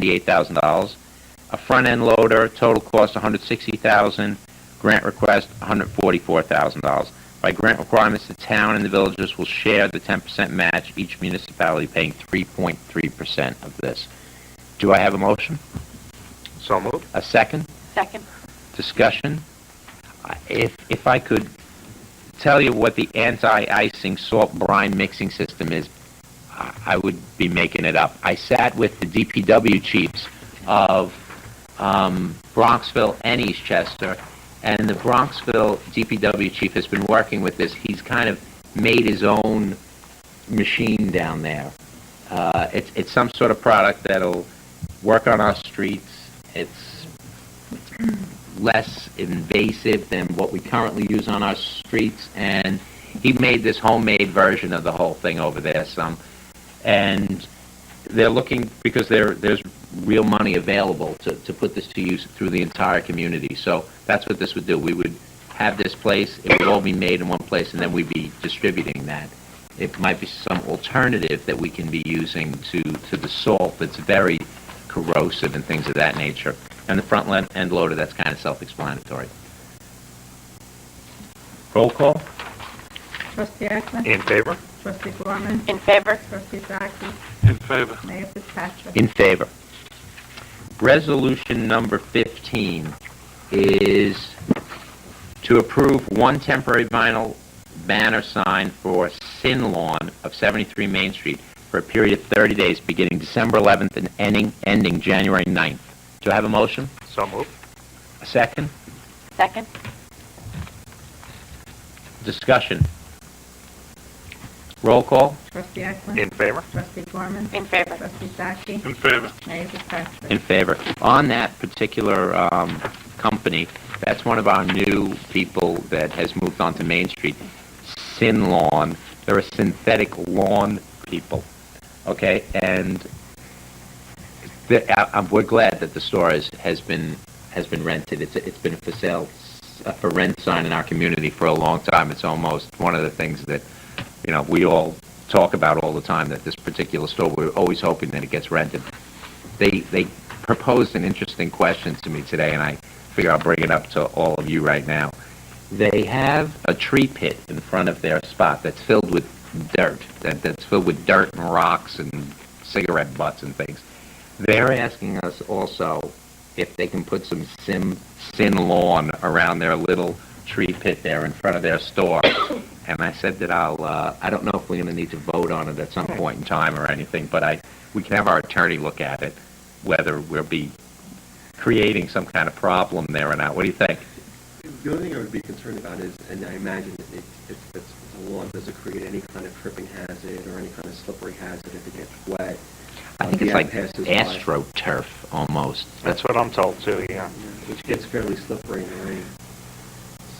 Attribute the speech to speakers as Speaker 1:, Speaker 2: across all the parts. Speaker 1: $198,000. A front-end loader, total cost $160,000, grant request $144,000. By grant requirements, the town and the villages will share the 10% match, each municipality paying 3.3% of this. Do I have a motion?
Speaker 2: So moved.
Speaker 1: A second?
Speaker 3: Second.
Speaker 1: discussion. I- If, if I could tell you what the anti-icing salt brine mixing system is, I I would be making it up. I sat with the DPW chiefs of um, Bronxville and Eastchester, and the Bronxville DPW chief has been working with this. He's kind of made his own machine down there. Uh, It's, it's some sort of product that'll work on our streets. It's less invasive than what we currently use on our streets, and he made this homemade version of the whole thing over there some. And they're looking, because there, there's real money available to, to put this to use through the entire community. So that's what this would do. We would have this place, it would all be made in one place, and then we'd be distributing that. It might be some alternative that we can be using to, to the salt that's very corrosive and things of that nature. And the front le- end loader, that's kind of self-explanatory. Roll call?
Speaker 4: Trustee Ecklin.
Speaker 2: In favor?
Speaker 4: Trustee Gorman.
Speaker 3: In favor?
Speaker 4: Trustee Zaki.
Speaker 2: In favor.
Speaker 4: Mayor Fitzpatrick.
Speaker 1: In favor. Resolution number 15 is to approve one temporary vinyl banner sign for Sin Lawn of 73 Main Street for a period of 30 days, beginning December 11th and ending, ending January 9th. Do I have a motion?
Speaker 2: So moved.
Speaker 1: A second?
Speaker 3: Second.
Speaker 1: Discussion? Roll call?
Speaker 4: Trustee Ecklin.
Speaker 2: In favor?
Speaker 4: Trustee Gorman.
Speaker 3: In favor?
Speaker 4: Trustee Zaki.
Speaker 2: Mm-hmm. In favor.
Speaker 4: Mayor Fitzpatrick.
Speaker 1: in favor. On that particular um, company, that's one of our new people that has moved on to Main Street, Sin Lawn. They're a synthetic lawn people, okay? And the, I, I'm, we're glad that the store is, has been has been rented. It's it's been for sale uh, for rent sign in our community for a long time. It's almost one of the things that you know we all talk about all the time. That this particular store, we're always hoping that it gets rented. They they proposed an interesting question to me today, and I figure I'll bring it up to all of you right now. They have a tree pit in front of their spot that's filled with dirt, that, that's filled with dirt and rocks and cigarette butts and things. They're asking us also if they can put some sim, sin lawn around their little tree pit there in front of their store. And I said that I'll, uh, I don't know if we're gonna need to vote on it at some point in time or anything, but I, we can have our attorney look at it, whether we'll be creating some kind of problem there or not. What do you think?
Speaker 5: The only thing I would be concerned about is, and I imagine it, it's, it's, it's a lawn, does it create any kind of tripping hazard or any kind of slippery hazard if it gets wet?
Speaker 1: I think
Speaker 5: Uh,
Speaker 1: it's
Speaker 5: yeah,
Speaker 1: like
Speaker 5: passes by.
Speaker 1: astroturf almost.
Speaker 2: That's what I'm told too, yeah.
Speaker 5: Yeah, Which gets fairly slippery in the rain.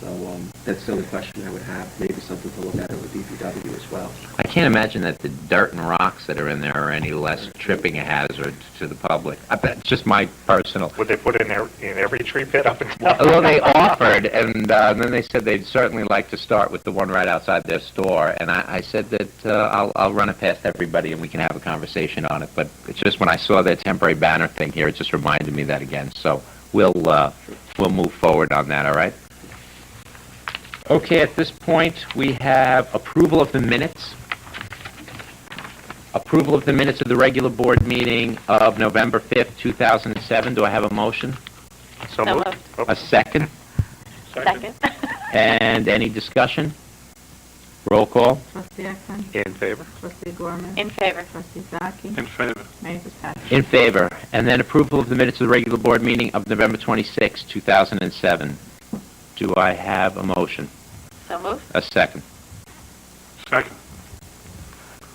Speaker 5: So, um, that's the only question I would have, maybe something to look at with DPW as well.
Speaker 1: I can't imagine that the dirt and rocks that are in there are any less tripping a hazard to the public. I bet it's just my personal.
Speaker 2: Would they put in every, in every tree pit up and down?
Speaker 1: Well, they offered, and uh, then they said they'd certainly like to start with the one right outside their store. And I, I said that uh, I'll, I'll run it past everybody and we can have a conversation on it. But it's just when I saw that temporary banner thing here, it just reminded me that again. So we'll uh, we'll move forward on that. All right. Okay. At this point, we have approval of the minutes. Approval of the minutes of the regular board meeting of November 5th, 2007. Do I have a motion?
Speaker 2: So
Speaker 3: So
Speaker 2: moved. Oh.
Speaker 3: moved.
Speaker 1: A second?
Speaker 3: Second.
Speaker 1: And any discussion? Roll call?
Speaker 4: Trustee Ecklin.
Speaker 2: In favor?
Speaker 4: Trustee Gorman.
Speaker 3: In favor?
Speaker 4: Trustee Zaki.
Speaker 2: favor.
Speaker 4: Mayor Fitzpatrick.
Speaker 1: In favor. And then approval of the minutes of the regular board meeting of November 26, 2007. Do I have a motion?
Speaker 3: So moved.
Speaker 1: A second?
Speaker 2: Second.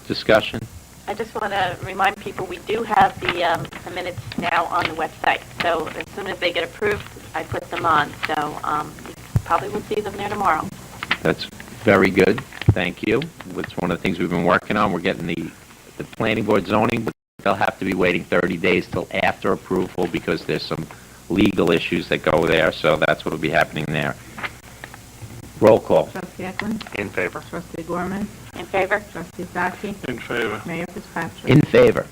Speaker 1: Discussion?
Speaker 3: I just want to remind people, we do have the um, the minutes now on the website. So as soon as they get approved, I put them on. So um, you probably will see them there tomorrow.
Speaker 1: That's very good. Thank you. It's one of the things we've been working on. We're getting the, the planning board zoning, but they'll have to be waiting 30 days till after approval because there's some legal issues that go there, so that's what'll be happening there. Roll call?
Speaker 4: Trustee Ecklin.
Speaker 2: In favor?
Speaker 4: Trustee Gorman.
Speaker 3: In favor?
Speaker 4: Trustee Zaki.
Speaker 2: In favor.
Speaker 4: Mayor Fitzpatrick.
Speaker 1: In favor.